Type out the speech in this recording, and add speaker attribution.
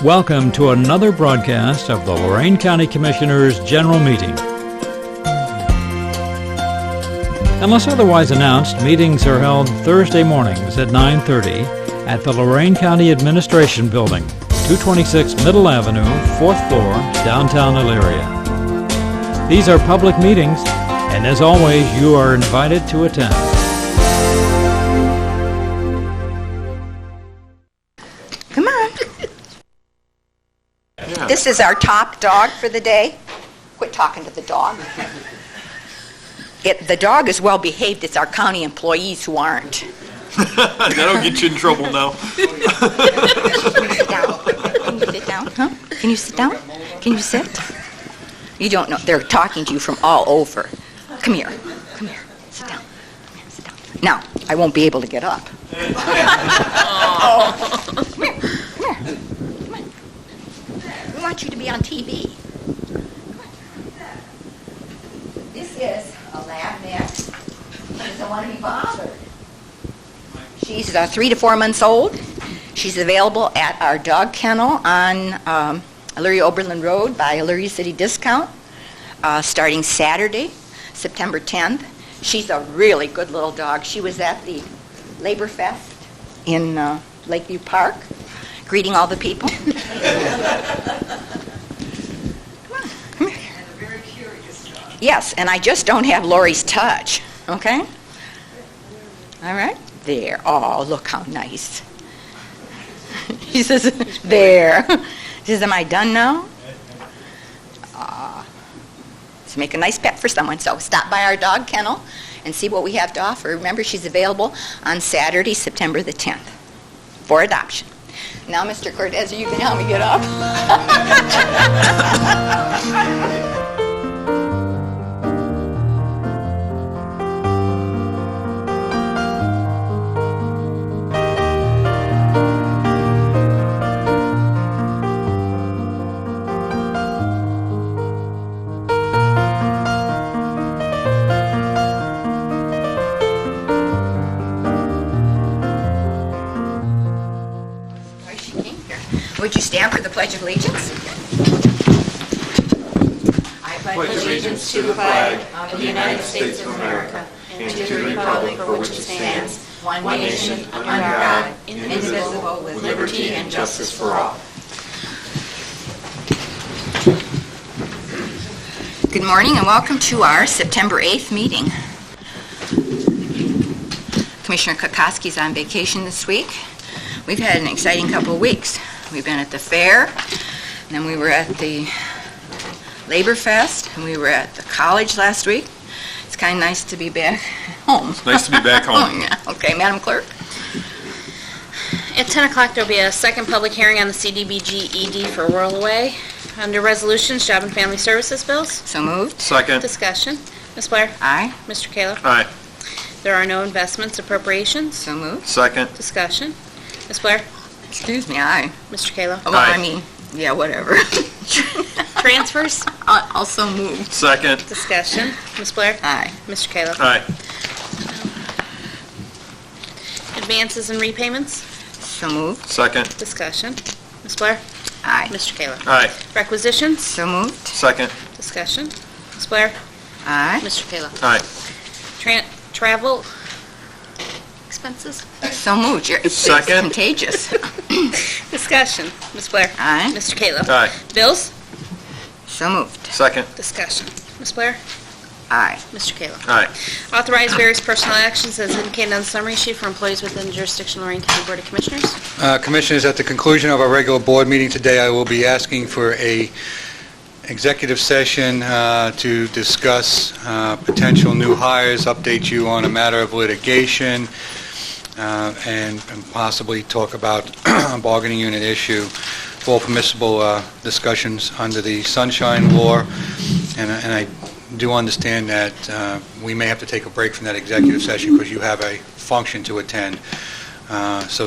Speaker 1: Welcome to another broadcast of the Lorraine County Commissioners' General Meeting. Unless otherwise announced, meetings are held Thursday mornings at 9:30 at the Lorraine County Administration Building, 226 Middle Avenue, 4th floor, downtown Elyria. These are public meetings, and as always, you are invited to attend.
Speaker 2: Come on. This is our top dog for the day. Quit talking to the dog. It, the dog is well behaved. It's our county employees who aren't.
Speaker 3: That'll get you in trouble now.
Speaker 2: Sit down. Can you sit down? Huh? Can you sit down? Can you sit? You don't know. They're talking to you from all over. Come here. Come here. Sit down. Come here. Sit down. Now, I won't be able to get up. Come here. Come here. Come on. We want you to be on TV. Come on. This is a lab mix. She doesn't want to be bothered. She's uh, three to four months old. She's available at our dog kennel on um, Elyria Oberlin Road by Elyria City Discount, uh, starting Saturday, September 10th. She's a really good little dog. She was at the Labor Fest in uh, Lakeview Park, greeting all the people.
Speaker 4: Very curious dog.
Speaker 2: Yes, and I just don't have Lori's touch, okay? All right, there. Oh, look how nice. He says, there. She says, am I done now? Ah, Let's make a nice pet for someone, so stop by our dog kennel and see what we have to offer. Remember, she's available on Saturday, September the 10th, for adoption. Now, Mr. Cortez, you can help me get up. Why she came here. Would you stand for the Pledge of Allegiance? I pledge
Speaker 4: allegiance to the flag of the United States of America and to the republic for which it stands, one nation, under God, indivisible, with liberty and justice for all.
Speaker 2: Good morning and welcome to our September 8th meeting. Commissioner Kokoski's on vacation this week. We've had an exciting couple of weeks. We've been at the fair, and then we were at the Labor Fest, and we were at the college last week. It's kind of nice to be back home. Oh,
Speaker 3: Nice to be back home.
Speaker 2: Okay, Madam Clerk?
Speaker 5: At 10 o'clock, there'll be a second public hearing on the CDBG ED E for Whirl Away. Under Resolutions, Job and Family Services Bills,
Speaker 2: So moved.
Speaker 3: Second.
Speaker 5: discussion. Ms. Blair?
Speaker 2: Aye.
Speaker 5: Mr. Kayla?
Speaker 3: Aye.
Speaker 5: There are no investments appropriations,
Speaker 2: So moved.
Speaker 3: Second.
Speaker 5: discussion. Ms. Blair?
Speaker 2: Excuse me, aye. Oh,
Speaker 5: Mr. Kayla?
Speaker 2: Well, I
Speaker 3: Aye.
Speaker 2: mean, yeah, whatever.
Speaker 5: Transfers,
Speaker 2: I- Also moved.
Speaker 3: Second.
Speaker 5: discussion. Ms. Blair?
Speaker 2: Aye.
Speaker 5: Mr. Kayla?
Speaker 3: Aye.
Speaker 5: Advances and repayments,
Speaker 2: So moved.
Speaker 3: Second.
Speaker 5: discussion. Ms. Blair?
Speaker 2: Aye.
Speaker 5: Mr. Kayla?
Speaker 3: Aye.
Speaker 5: Requisitions,
Speaker 2: So moved.
Speaker 3: Second.
Speaker 5: discussion. Ms. Blair?
Speaker 2: Aye.
Speaker 5: Mr. Kayla?
Speaker 3: Aye.
Speaker 5: Tran- Travel expenses,
Speaker 2: So moved. You're- It's it's
Speaker 3: Second.
Speaker 2: contagious.
Speaker 5: discussion. Ms. Blair?
Speaker 2: Aye.
Speaker 5: Mr. Kayla?
Speaker 3: Aye.
Speaker 5: Bills?
Speaker 2: So moved.
Speaker 3: Second.
Speaker 5: Discussion. Ms. Blair?
Speaker 2: Aye.
Speaker 5: Mr. Kayla?
Speaker 3: Aye.
Speaker 5: Authorize various personnel actions as indicated on the summary sheet for employees within the jurisdiction of Lorraine County Board of Commissioners.
Speaker 6: Uh, Commissioners, at the conclusion of our regular board meeting today, I will be asking for a executive session uh, to discuss uh, potential new hires, update you on a matter of litigation, uh, and and possibly talk about a bargaining unit issue. All permissible uh, discussions under the Sunshine Law, and I- and I do understand that uh, we may have to take a break from that executive session because you have a function to attend. Uh, So